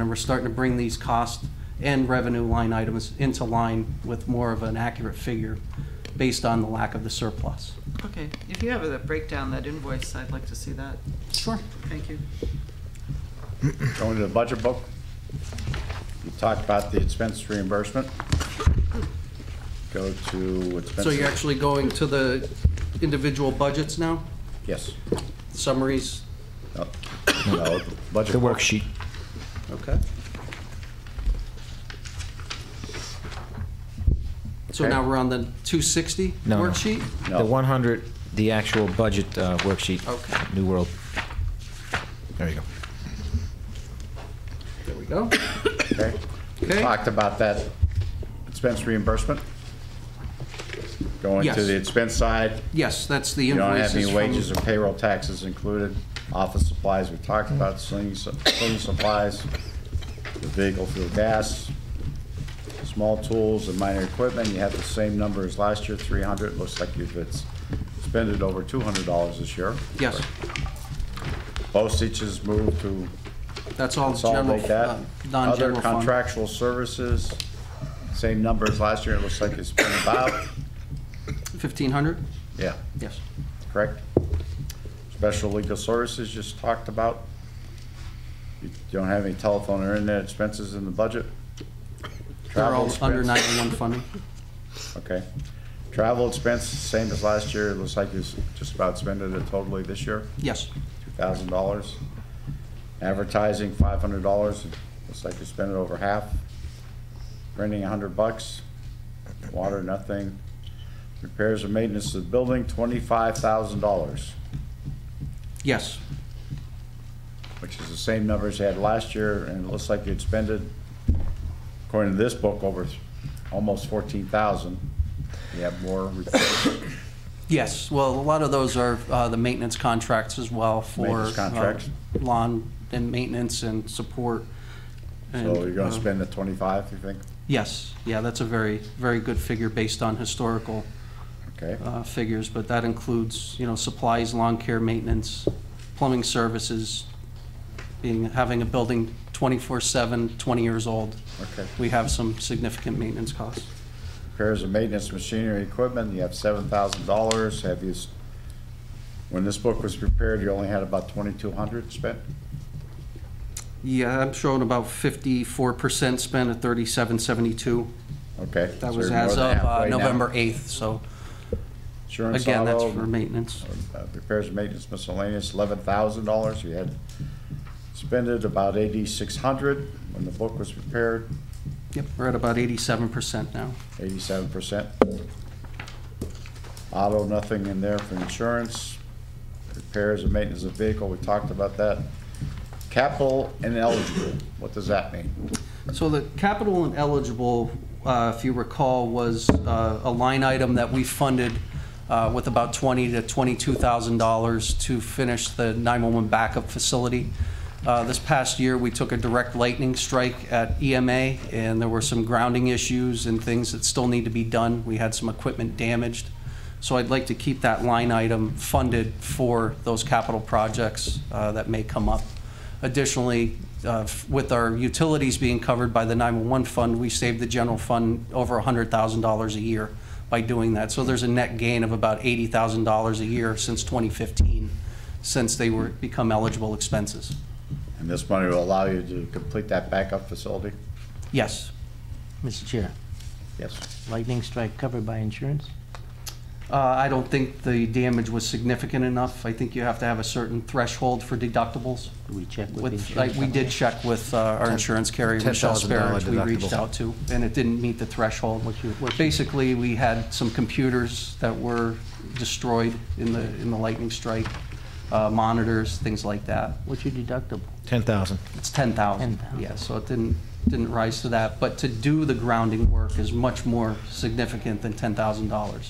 and we're starting to bring these cost and revenue line items into line with more of an accurate figure based on the lack of the surplus. Okay, if you have a breakdown, that invoice, I'd like to see that. Sure. Thank you. Going to the budget book. We talked about the expense reimbursement. Go to expenses. So you're actually going to the individual budgets now? Yes. Summaries? No, no, Budget. The book. worksheet. Okay. So Okay. now we're on the 260 No, no. worksheet? No. The 100, the actual budget uh, worksheet. Okay. New World. There you go. There we go. Okay. We Okay. Talked about that expense reimbursement. Going to Yes. the expense side. Yes, that's the You don't invoices have from... any wages or payroll taxes included. Office supplies, we talked about, cleaning su- cleaning supplies, the vehicle fuel gas, small tools and minor equipment, you have the same number as last year, 300. Looks like you've it's expended over $200 this year. Yes, Postage is moved to that's all general, consolidate that. uh, non-general Other fund. contractual services, same number as last year, it looks like it's been about, 1,500? yeah, Yes. correct? Special legal services just talked about. You don't have any telephone or internet expenses in the budget? They're Travel all under expense? 91 funding. Okay. Travel expense, same as last year, it looks like you just about spent it totally this year, Yes, $2,000. Advertising, $500, looks like you spent it over half. Renting, 100 bucks. Water, nothing. Repairs and maintenance of the building, $25,000, yes, which is the same number as you had last year, and it looks like you'd spent it, according to this book, over almost 14,000. You have more repairs. yes. Well, a lot of those are uh, the maintenance contracts as well for. Maintenance contracts. uh, Lawn and maintenance and support. and, So you're gonna uh, spend the twenty-five, you think? Yes, yeah, that's a very, very good figure based on historical Okay, uh, figures, but that includes, you know, supplies, lawn care, maintenance, plumbing services, being, having a building 24/7, 20 years old. okay. We have some significant maintenance costs. Repairs and maintenance machinery equipment, you have seven thousand dollars, have you, s- when this book was prepared, you only had about twenty-two hundred spent? Yeah, I'm showing about 54% spent at 3772. Okay. That was so you're more as than of uh, halfway now. November 8th, so Insurance again, that's auto, for maintenance. uh, Repairs and maintenance miscellaneous, eleven thousand dollars, you had spent it about eighty-six hundred when the book was prepared, Yep, we're at about 87% now. eighty-seven percent. Auto, nothing in there for insurance. Repairs and maintenance of vehicle, we talked about that. Capital ineligible, what does that mean? So the capital and eligible, uh, if you recall, was uh, a line item that we funded uh, with about twenty to twenty-two thousand dollars to finish the nine-one-one backup facility. Uh, This past year, we took a direct lightning strike at EMA, and there were some grounding issues and things that still need to be done. We had some equipment damaged. So I'd like to keep that line item funded for those capital projects uh, that may come up. Additionally, uh, with our utilities being covered by the 911 fund, we saved the general fund over $100,000 a year by doing that. So there's a net gain of about $80,000 a year since 2015, since they were, become eligible expenses. And this money will allow you to complete that backup facility? Yes, Mr. Chair, Yes. lightning strike covered by insurance? Uh, I don't think the damage was significant enough. I think you have to have a certain threshold for deductibles. Do we check with the With, insurance? like, we did company? check with uh, our insurance carrier, Michelle Sparrow, which we $10,000 reached deductible. out to, and it didn't meet the threshold. What's your- what's your- Basically, we had some computers that were destroyed in the, in the lightning strike, uh, monitors, things like that. What's your deductible? 10,000. It's 10,000. 10,000. Yeah, so it didn't, didn't rise to that. But to do the grounding work is much more significant than $10,000.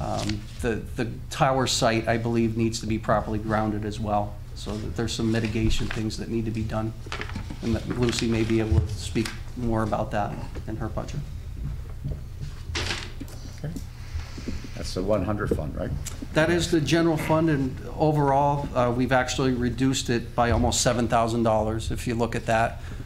Um, The, the tower site, I believe, needs to be properly grounded as well, so that there's some mitigation things that need to be done. And that Lucy may be able to speak more about that in her budget. That's the one hundred fund, right? That is the general fund, and overall, uh, we've actually reduced it by almost $7,000, if you look at that.